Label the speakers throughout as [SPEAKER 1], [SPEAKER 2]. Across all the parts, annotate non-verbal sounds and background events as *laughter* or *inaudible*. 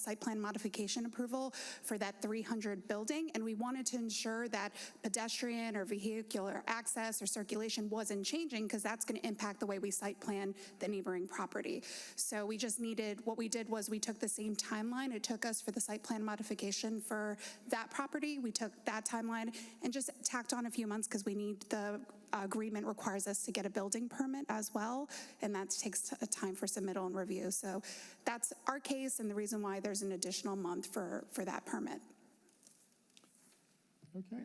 [SPEAKER 1] site plan modification approval for that 300 building, and we wanted to ensure that pedestrian or vehicular access or circulation wasn't changing, because that's going to impact the way we site plan the neighboring property. So we just needed, what we did was we took the same timeline it took us for the site plan modification for that property, we took that timeline and just tacked on a few months, because we need, the agreement requires us to get a building permit as well, and that takes a time for submittal and review. So that's our case and the reason why there's an additional month for, for that permit.
[SPEAKER 2] Okay.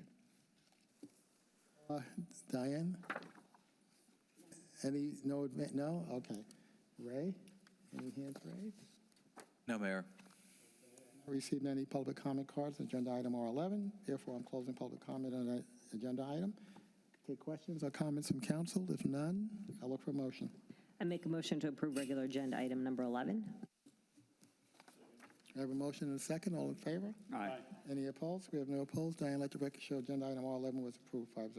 [SPEAKER 2] Uh, Diane? Any, no, admi- no? Okay. Ray? Any hands raised?
[SPEAKER 3] No, Mayor.
[SPEAKER 2] Received any public comment cards, on agenda item R11. Therefore, I'm closing public comment on that agenda item. Take questions or comments from council? If none, I look for a motion.
[SPEAKER 4] I make a motion to approve regular agenda item number 11.
[SPEAKER 2] I have a motion and a second. All in favor?
[SPEAKER 3] Aye.
[SPEAKER 2] Any opposed? We have no opposed. Diane, let the record show agenda item R11 was approved, 5-0.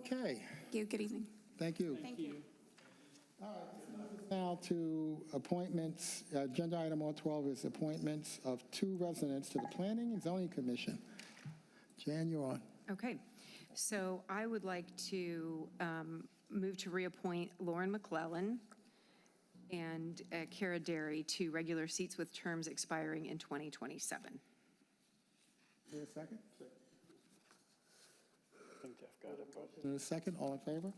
[SPEAKER 2] Okay,
[SPEAKER 1] Thank you, good evening.
[SPEAKER 2] thank you.
[SPEAKER 1] Thank you.
[SPEAKER 2] Now to appointments, Uh, agenda item R12 is appointments of two residents to the Planning and Zoning Commission. Jan, you're on.
[SPEAKER 5] Okay, so I would like to um, move to reappoint Lauren McClellan and uh, Kara Derry to regular seats with terms expiring in 2027.
[SPEAKER 2] Is there a second? In a second, all in favor?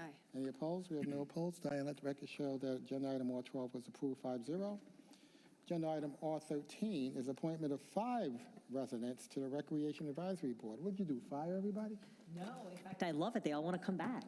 [SPEAKER 5] Aye.
[SPEAKER 2] Any opposed? We have no opposed. Diane, let the record show that agenda item R12 was approved 5-0. Agenda item R13 is appointment of five residents to the Recreation Advisory Board. What'd you do, fire everybody?
[SPEAKER 4] No, in fact, I love it. They all want to come *laughs* back.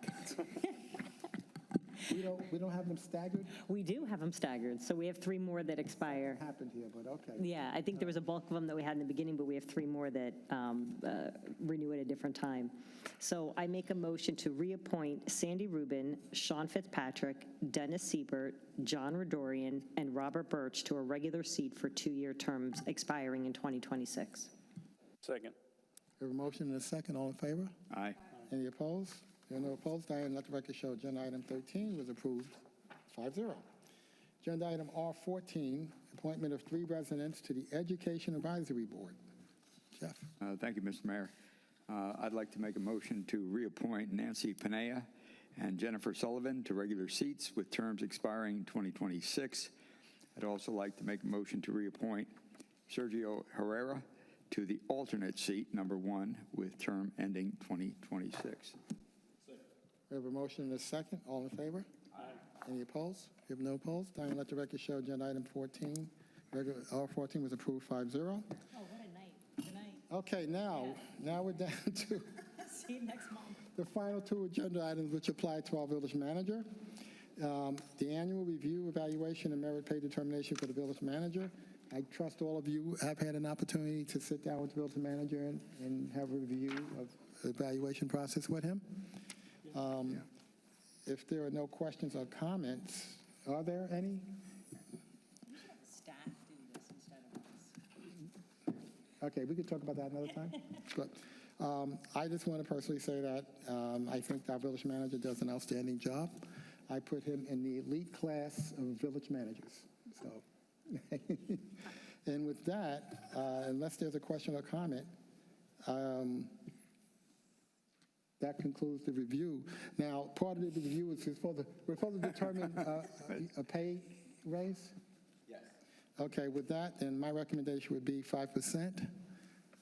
[SPEAKER 2] We don't, we don't have them staggered?
[SPEAKER 4] We do have them staggered, so we have three more that expire.
[SPEAKER 2] Happened here, but okay.
[SPEAKER 4] Yeah, I think there was a bulk of them that we had in the beginning, but we have three more that um, uh, renew at a different time. So I make a motion to reappoint Sandy Rubin, Sean Fitzpatrick, Dennis Siebert, John Redorian, and Robert Birch to a regular seat for two-year terms expiring in 2026.
[SPEAKER 6] Second.
[SPEAKER 2] We have a motion and a second, all in favor?
[SPEAKER 3] Aye.
[SPEAKER 2] Any opposed? There are no opposed. Diane, let the record show agenda item 13 was approved 5-0. Agenda item R14, appointment of three residents to the Education Advisory Board. Jeff,
[SPEAKER 7] Uh, Thank you, Mr. Mayor. Uh, I'd like to make a motion to reappoint Nancy Panea and Jennifer Sullivan to regular seats with terms expiring 2026. I'd also like to make a motion to reappoint Sergio Herrera to the alternate seat, number one, with term ending 2026.
[SPEAKER 2] we have a motion and a second. All in favor? Aye. Any opposed? We have no opposed. Diane, let the record show agenda item 14, regular, R14 was approved 5-0.
[SPEAKER 4] Oh, what a night. Good night.
[SPEAKER 2] Okay, now, now we're down *laughs* to
[SPEAKER 4] *laughs* See you next month.
[SPEAKER 2] The final two agenda items which apply to our village manager. Um, The annual review, evaluation, and merit pay determination for the village manager. I trust all of you have had an opportunity to sit down with the village manager and- and have a review of evaluation process with him. Um, If there are no questions or comments, are there any?
[SPEAKER 4] Staff do this instead of us.
[SPEAKER 2] Okay, we could talk about that another time. But um, I just want to personally say that um, I think our village manager does an outstanding job. I put him in the elite class of village managers, so. *laughs* And with that, uh, unless there's a question or comment, um, that concludes the review. Now, part of the review is we're supposed to, we're supposed to determine uh, a a pay raise? Okay, with that, then my recommendation would be 5%.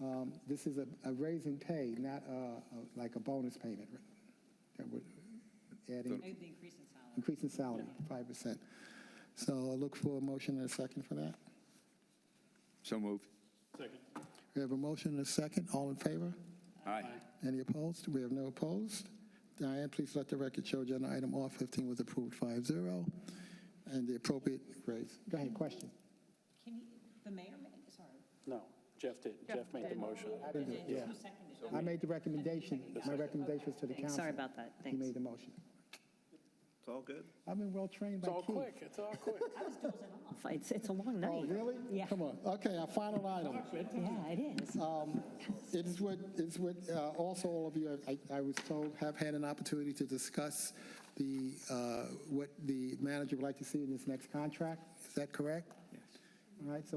[SPEAKER 2] Um, This is a a raise in pay, not uh, a- like a bonus payment. That would adding,
[SPEAKER 4] It would be increasing salary.
[SPEAKER 2] increase in salary, 5%. So I look for a motion and a second for that.
[SPEAKER 7] So moved.
[SPEAKER 2] We have a motion and a second. All in favor?
[SPEAKER 7] Aye.
[SPEAKER 2] Any opposed? We have no opposed. Diane, please let the record show agenda item R15 was approved 5-0, and the appropriate raise. Go ahead, question.
[SPEAKER 4] Can he, the mayor, ma- sorry.
[SPEAKER 6] No, Jeff did. Jeff made the motion.
[SPEAKER 2] I didn't do it, yeah.
[SPEAKER 4] seconded
[SPEAKER 2] I made the recommendation, my recommendation was to the council.
[SPEAKER 4] Sorry about that,
[SPEAKER 2] He
[SPEAKER 4] thanks.
[SPEAKER 2] made the motion.
[SPEAKER 8] It's all good.
[SPEAKER 2] I've been well-trained by
[SPEAKER 6] It's all
[SPEAKER 2] Keith.
[SPEAKER 6] quick, it's all quick.
[SPEAKER 4] It's, it's a long night.
[SPEAKER 2] Oh, really?
[SPEAKER 4] Yeah.
[SPEAKER 2] Come on. Okay, our final item.
[SPEAKER 4] Yeah, it is.
[SPEAKER 2] Um, It is what, it's what, uh, also all of you, have- I, I was told, have had an opportunity to discuss the, uh, what the manager would like to see in his next contract. Is that correct? Yes. All right, so